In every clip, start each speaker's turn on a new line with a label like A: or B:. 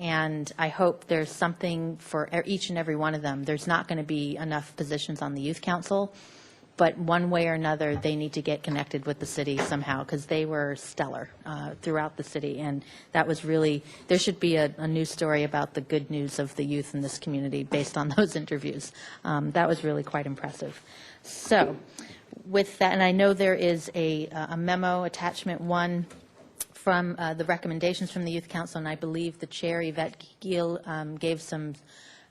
A: And I hope there's something for e- each and every one of them. There's not going to be enough positions on the youth council, but one way or another, they need to get connected with the city somehow, because they were stellar uh, throughout the city. And that was really, there should be a, a news story about the good news of the youth in this community based on those interviews. Um, That was really quite impressive. So with that, and I know there is a a memo, attachment one, from uh, the recommendations from the Youth Council, and I believe the chair, Yvette Giel, um, gave some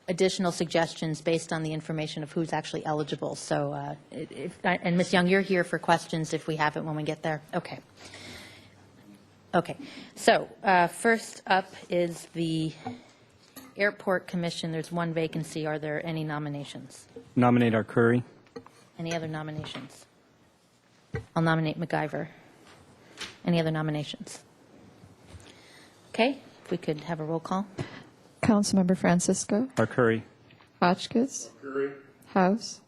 A: additional suggestions based on the information of who's actually eligible. So, uh, it- if- and Ms. Young, you're here for questions if we have it when we get there? Okay. Okay. So uh, first up is the Airport Commission. There's one vacancy. Are there any nominations?
B: Nominate our Curry.
A: Any other nominations? I'll nominate MacGyver. Any other nominations? Okay, if we could have a roll call.
C: Councilmember Francisco,
B: Our Curry.
C: Hotchkiss. House.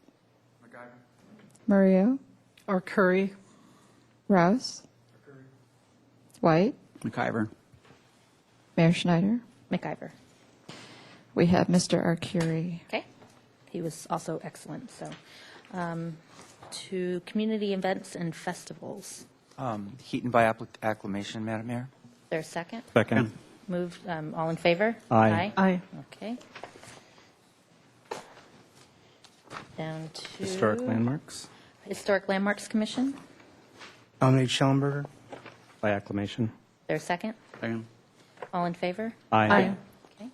C: Mario,
D: Or Curry.
C: Rouse. White,
E: McIver.
C: Mayor Schneider.
A: MacGyver.
C: We have Mr. Arcuri.
A: Okay. He was also excellent, so. um, To community events and festivals.
E: Um, Heaton by appli- acclamation, Madam Mayor.
A: Is there a second?
B: Second.
A: Moved, um, all in favor?
B: Aye.
D: Aye.
A: Okay. Down to.
B: Historic landmarks
A: Historic Landmarks Commission. Is
F: Nominate Schellenberger.
B: by acclamation.
A: there a second?
E: Second.
A: All in favor?
B: Aye.
A: Okay.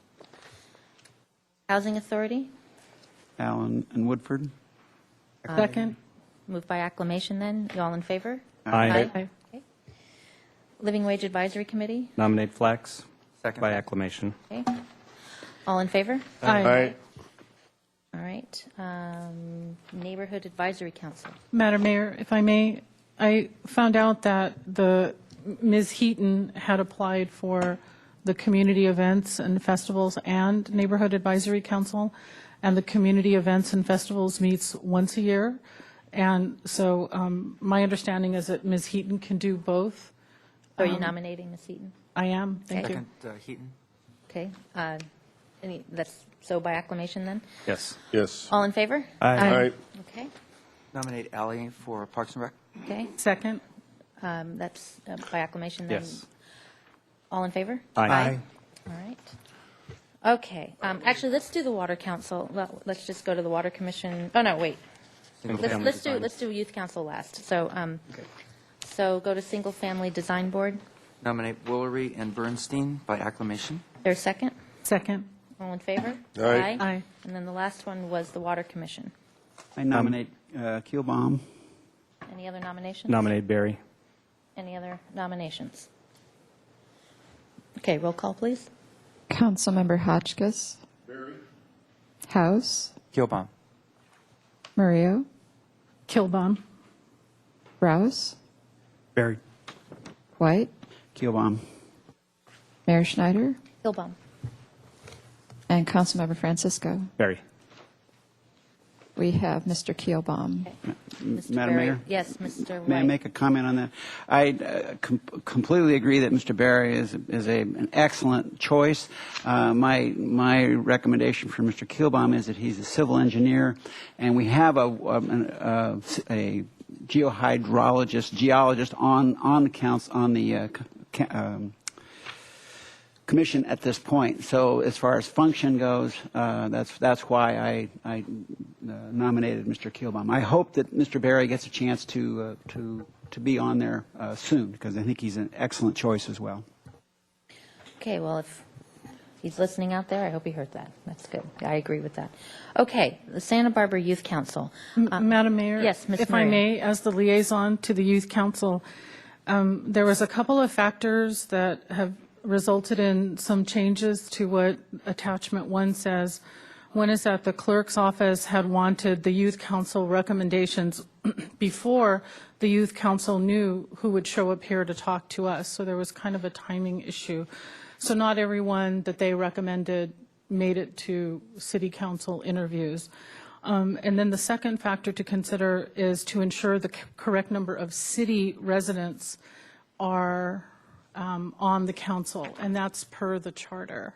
A: Housing Authority,
E: Allen and Woodford.
D: Second.
A: moved by acclamation then, You all in favor?
B: Aye.
D: Aye.
A: Okay. Living Wage Advisory Committee,
B: Nominate Flax
E: Second.
B: by acclamation.
A: okay. All in favor?
D: Aye.
A: All right. Um, Neighborhood Advisory Council,
D: Madam Mayor, if I may, I found out that the, Ms. Heaton had applied for the community events and festivals and Neighborhood Advisory Council, and the community events and festivals meets once a year. And so um, my understanding is that Ms. Heaton can do both.
A: are you Oh, nominating Ms. Eaton?
D: I am, thank you.
E: Second, uh, Heaton.
A: Okay. uh, Any, that's, so by acclamation then?
B: Yes.
G: Yes.
A: All in favor?
G: All right.
A: Okay,
E: Nominate Alley for Parks and Rec.
A: okay.
D: Second.
A: Um, That's uh, by acclamation then?
B: Yes.
A: All in favor?
B: Aye.
A: All right. Okay, um, actually, let's do the Water Council. Well, Let's just go to the Water Commission. Oh, no, wait. Let's,
B: Single-family
A: let's do,
B: design.
A: let's do Youth Council last. So, um, so go to Single Family Design Board.
E: Nominate Woolery and Bernstein by acclamation.
A: There's second.
D: Second.
A: All in favor?
G: Aye.
D: Aye.
A: And then the last one was the Water Commission.
H: I nominate uh, Keelbaum.
A: Any other nominations?
B: Nominate Barry.
A: Any other nominations? Okay, roll call, please.
C: Councilmember Hotchkiss. House.
E: Keelbaum.
C: Mario,
D: Kilbom.
C: Rouse.
B: Barry.
C: White,
H: Keelbaum.
C: Mayor Schneider,
A: Hillbaum.
C: and Councilmember Francisco.
B: Barry.
C: We have Mr. Keelbaum.
A: Mr.
H: Madam
A: Berry.
H: Mayor?
A: Yes, Mr. White.
H: May I make a comment on that? I uh, com- completely agree that Mr. Barry is, is a, an excellent choice. Uh, my, my recommendation for Mr. Keelbaum is that he's a civil engineer, and we have a, um, an- a, a geohydrologist, geologist on, on the council, on the uh, c- ca- um, commission at this point. So as far as function goes, uh, that's, that's why I, I uh, nominated Mr. Keelbaum. I hope that Mr. Barry gets a chance to, uh, to, to be on there uh, soon, because I think he's an excellent choice as well.
A: Okay, well, if he's listening out there, I hope he heard that. That's good. I agree with that. Okay, the Santa Barbara Youth Council. Uh,
D: Madam Mayor?
A: yes, Ms.
D: If I
A: Maria.
D: may, as the liaison to the Youth Council, um, there was a couple of factors that have resulted in some changes to what Attachment 1 says. One is that the clerk's office had wanted the Youth Council recommendations before the Youth Council knew who would show up here to talk to us, so there was kind of a timing issue. So not everyone that they recommended made it to city council interviews. Um, And then the second factor to consider is to ensure the c- correct number of city residents are um, on the council, and that's per the charter.